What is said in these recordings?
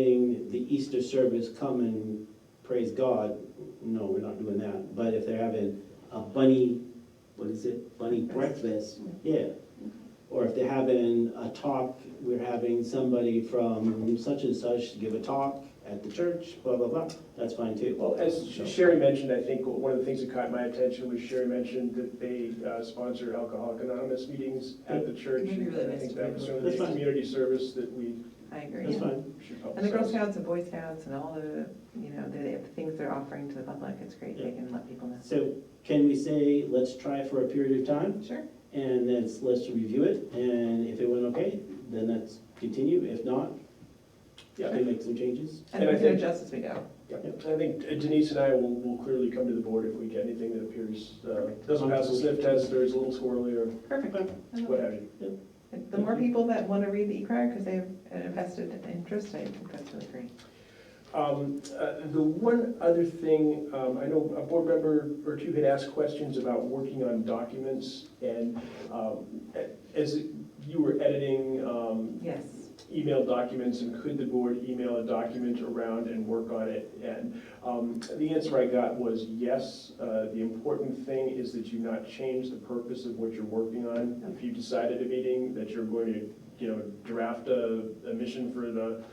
having the Easter service come and praise God, no, we're not doing that. But if they're having a bunny, what is it, bunny breakfast, yeah. Or if they're having a talk, we're having somebody from such and such give a talk at the church, blah, blah, blah, that's fine too. Well, as Sherry mentioned, I think one of the things that caught my attention was Sherry mentioned that they uh, sponsor Alcoholic Anonymous meetings at the church. Maybe really And I think that was sort of the That's fine. community service that we I That's agree. fine, should And the Girl publicize. Scouts and Boy Scouts and all the, you know, the the things they're offering to the public, it's great, they can let people know. so can we say, let's try for a period of time? Sure. And then it's- let's review it, and if it went okay, then let's continue, if not, yeah, we make some changes. And And I we can think- adjust as we go. Yeah. I think uh, Denise and I will, will clearly come to the board if we get anything that appears, uh, doesn't pass the sniff test, or is a little squirrely, or Perfect. Okay. I love what it. have you. The more people that want to read the e-crier because they have an invested interest, I think that's really great. Um, uh, The one other thing, um, I know a board member or two had asked questions about working on documents, and um, a- as you were editing um, Yes. email documents and could the board email a document around and work on it? And um, the answer I got was yes. Uh, The important thing is that you not change the purpose of what you're working on. If you decide at a meeting that you're going to, you know, draft a, a mission for the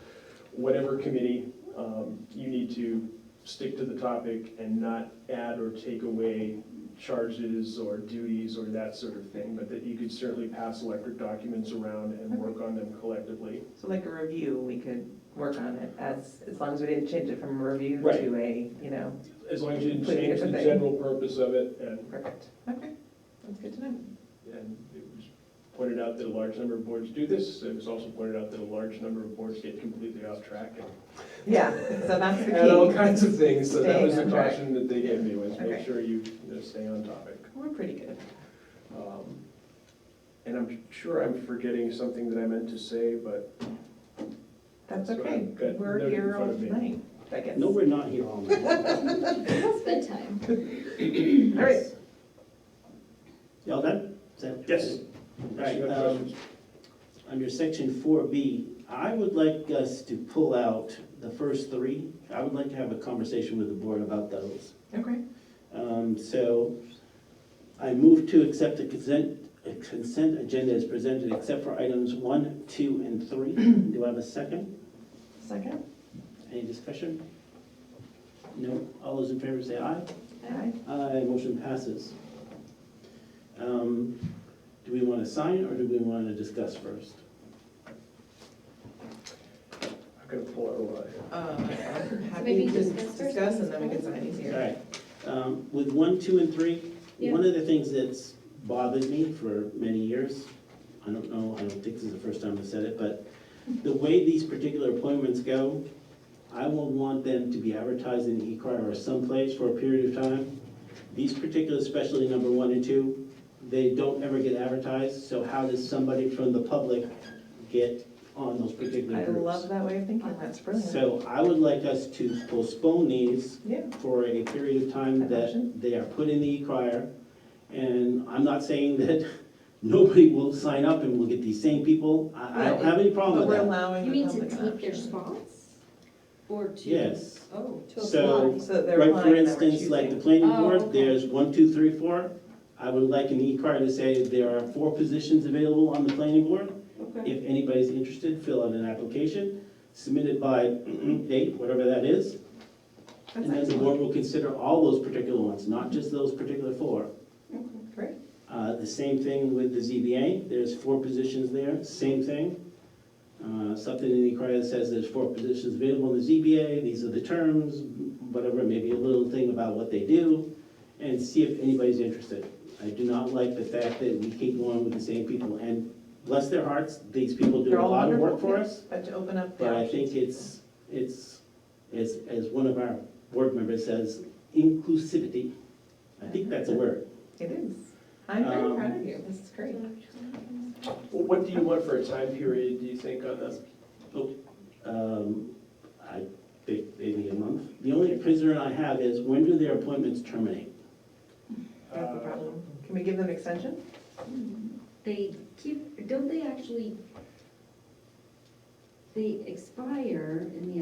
whatever committee, um, you need to stick to the topic and not add or take away charges or duties or that sort of thing, but that you could certainly pass electric documents around and work on them collectively. So like a review, we could work on it as, as long as we didn't change it from a review Right. to a, you know, As long as you didn't Completely change the different thing. general purpose of it, and, perfect. Okay, that's good to know. and it was pointed out that a large number of boards do this, it was also pointed out that a large number of boards get completely off track and- Yeah, so that's the key. and all kinds of things, so that Staying was the on track. caution that they gave me, was Okay. make sure you you know, stay on topic. We're pretty good. Um, And I'm sure I'm forgetting something that I meant to say, but That's That's what okay. I've got We're noted in here all front of me. night, I guess. No, we're not here all night. It's bedtime. All right. Y'all done? Is that- Yes. All unless right, you have um, questions. under section four B, I would like us to pull out the first three. I would like to have a conversation with the board about those. Okay. Um, so I move to accept the consent, a consent agenda as presented except for items one, two, and three. Do I have a second? Second? Any discussion? No? All those in favor say aye. Aye. Aye, motion passes. Um, Do we want to sign or do we want to discuss first? I'm gonna pull out a lot. Um, I'm happy maybe to discuss first, discuss and then we can discuss. sign All easier. right, Um, with one, two, and three, one Yeah. of the things that's bothered me for many years, I don't know, I don't think this is the first time I've said it, but the way these particular appointments go, I will want them to be advertised in eCryer or someplace for a period of time. These particular, especially number one and two, they don't ever get advertised, so how does somebody from the public get on those particular I groups? love that way of thinking, that's brilliant. So I would like us to postpone these Yeah, for a period of time That that motion? they are put in the e-crier. And I'm not saying that nobody will sign up and we'll get these same people. I, I don't have any problem but with we're that. allowing You the mean to public take their option. spots? Or to? Yes. Oh, to So- apply. So that they're Right, for applying and that we're instance, like the choosing. planning Oh, board, okay. there's one, two, three, four. I would like an e-crier to say there are four positions available on the planning board. Okay. If anybody's interested, fill out an application, submit it by date, whatever that is. That's And then the excellent, board will consider all those particular ones, not just those particular four. great. Uh, The same thing with the ZBA, there's four positions there, same thing. Uh, Something in the inquiry that says there's four positions available in the ZBA, these are the terms, whatever, maybe a little thing about what they do, and see if anybody's interested. I do not like the fact that we keep going with the same people, and bless their hearts, these people do They're a all lot of work wonderful, for yeah. us, But to open up the but I option. think it's, it's, as, as one of our board members says, inclusivity. I think that's a word. It is. I'm very Um, proud of you, this is great. Well, What do you want for a time period, do you think, on this? Um, I think maybe a month. The only concern I have is when do their appointments terminate? That's the Uh, problem. Can we give them an extension? They keep, don't they actually, they expire in the